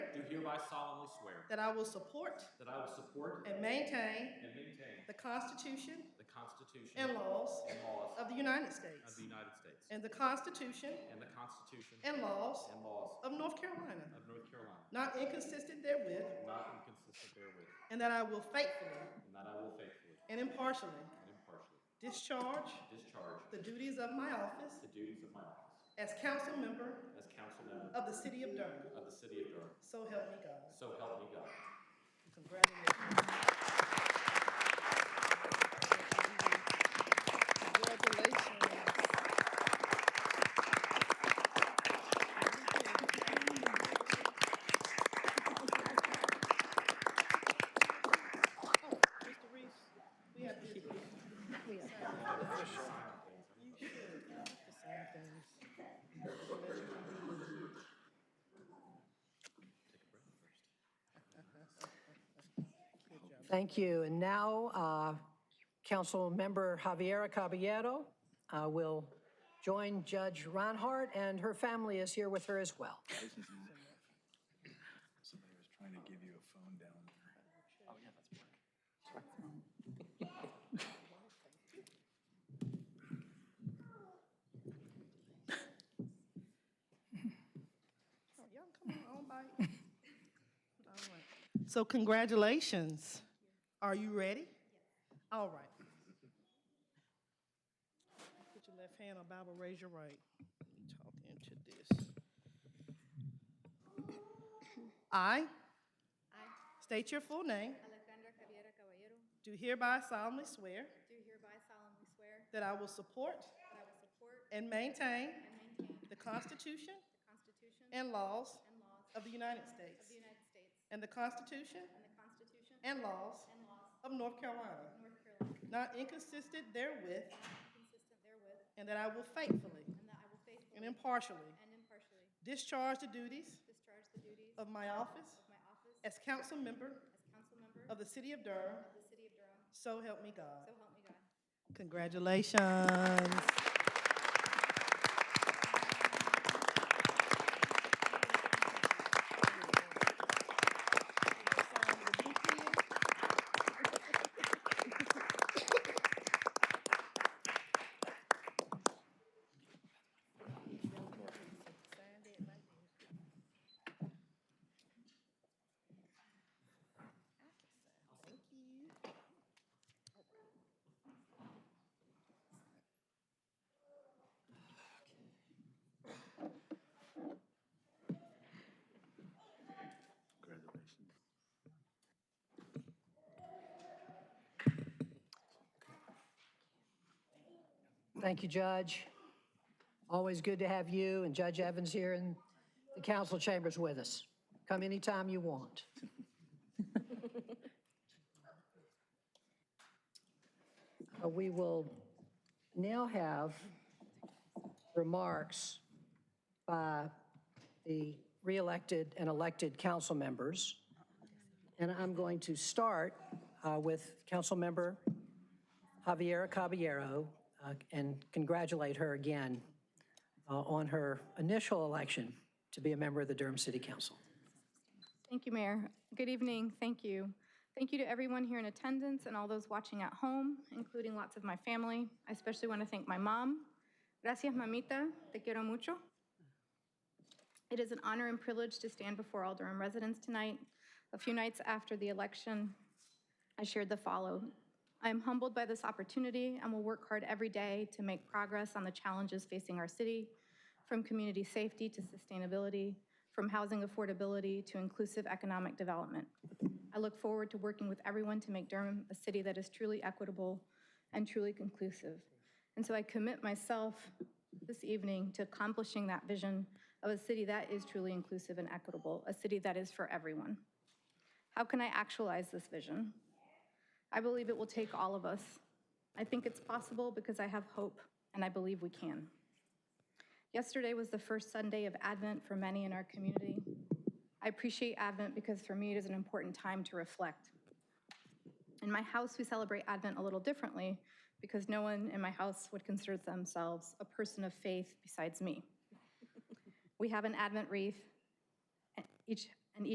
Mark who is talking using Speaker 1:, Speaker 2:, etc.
Speaker 1: hereby solemnly swear
Speaker 2: that I will support
Speaker 1: that I will support
Speaker 2: and maintain
Speaker 1: and maintain
Speaker 2: the Constitution
Speaker 1: the Constitution
Speaker 2: and laws
Speaker 1: and laws
Speaker 2: of the United
Speaker 1: of
Speaker 2: States
Speaker 1: the United States
Speaker 2: and the Constitution
Speaker 1: and the Constitution
Speaker 2: and laws
Speaker 1: and laws
Speaker 2: of North Carolina,
Speaker 1: of North Carolina,
Speaker 2: not inconsistent therewith,
Speaker 1: not inconsistent therewith,
Speaker 2: and that I will faithfully
Speaker 1: and that I will faithfully
Speaker 2: and impartially
Speaker 1: and impartially
Speaker 2: discharge
Speaker 1: discharge
Speaker 2: the duties of my office
Speaker 1: the duties of my office
Speaker 2: as council member
Speaker 1: as council member
Speaker 2: of the City of Durham.
Speaker 1: of the city of Durham.
Speaker 2: So help me God.
Speaker 1: So help me God.
Speaker 2: Congratulations. Congratulations. Oh, Mr. Reese, we have to.
Speaker 3: We are.
Speaker 2: You should.
Speaker 3: Thank you. And now, uh, Councilmember Javiera Caballero uh, will join Judge Reinhardt, and her family is here with her as well.
Speaker 4: Somebody was trying to give you a phone down there.
Speaker 2: Oh, Y'all come on, bye. All right. So congratulations. Are you ready? All right. Put your left hand on Bible, raise your right. Talk into this. I
Speaker 5: I,
Speaker 2: state your full name,
Speaker 5: Alejandra Javiera Caballero,
Speaker 2: do hereby solemnly swear
Speaker 5: do hereby solemnly swear
Speaker 2: that I will support
Speaker 5: that I will support
Speaker 2: and maintain
Speaker 5: and maintain
Speaker 2: the Constitution
Speaker 5: the Constitution and
Speaker 2: and laws
Speaker 5: laws
Speaker 2: of the United
Speaker 5: of
Speaker 2: States
Speaker 5: the United States
Speaker 2: and the Constitution
Speaker 5: and the Constitution
Speaker 2: and
Speaker 5: and
Speaker 2: laws
Speaker 5: laws
Speaker 2: of North Carolina.
Speaker 5: of North Carolina,
Speaker 2: not inconsistent therewith,
Speaker 5: consistent therewith,
Speaker 2: and that I will faithfully
Speaker 5: and that I will
Speaker 2: and
Speaker 5: faithfully
Speaker 2: impartially
Speaker 5: and impartially
Speaker 2: discharge the duties
Speaker 5: discharge the duties
Speaker 2: of
Speaker 5: of
Speaker 2: my office
Speaker 5: my office as
Speaker 2: as council member
Speaker 5: council member
Speaker 2: of
Speaker 5: of
Speaker 2: the City of Durham,
Speaker 5: the City of Durham,
Speaker 2: so help me God.
Speaker 5: so help me God.
Speaker 2: Congratulations.
Speaker 4: Congratulations.
Speaker 3: Thank you, Judge. Always good to have you and Judge Evans here in the council chambers with us. Come anytime you want. Uh, We will now have remarks by the re-elected and elected council members. And I'm going to start uh, with Councilmember Javiera Caballero uh, and congratulate her again uh, on her initial election to be a member of the Durham City Council.
Speaker 5: Thank you, Mayor. Good evening, thank you. Thank you to everyone here in attendance and all those watching at home, including lots of my family. I especially want to thank my mom. Gracias, mamita, te quiero mucho. It is an honor and privilege to stand before all Durham residents tonight. A few nights after the election, I shared the follow. I am humbled by this opportunity and will work hard every day to make progress on the challenges facing our city, from community safety to sustainability, from housing affordability to inclusive economic development. I look forward to working with everyone to make Durham a city that is truly equitable and truly conclusive. And so I commit myself this evening to accomplishing that vision of a city that is truly inclusive and equitable, a city that is for everyone. How can I actualize this vision? I believe it will take all of us. I think it's possible because I have hope, and I believe we can. Yesterday was the first Sunday of Advent for many in our community. I appreciate Advent because for me, it is an important time to reflect. In my house, we celebrate Advent a little differently because no one in my house would consider themselves a person of faith besides me. We have an Advent wreath each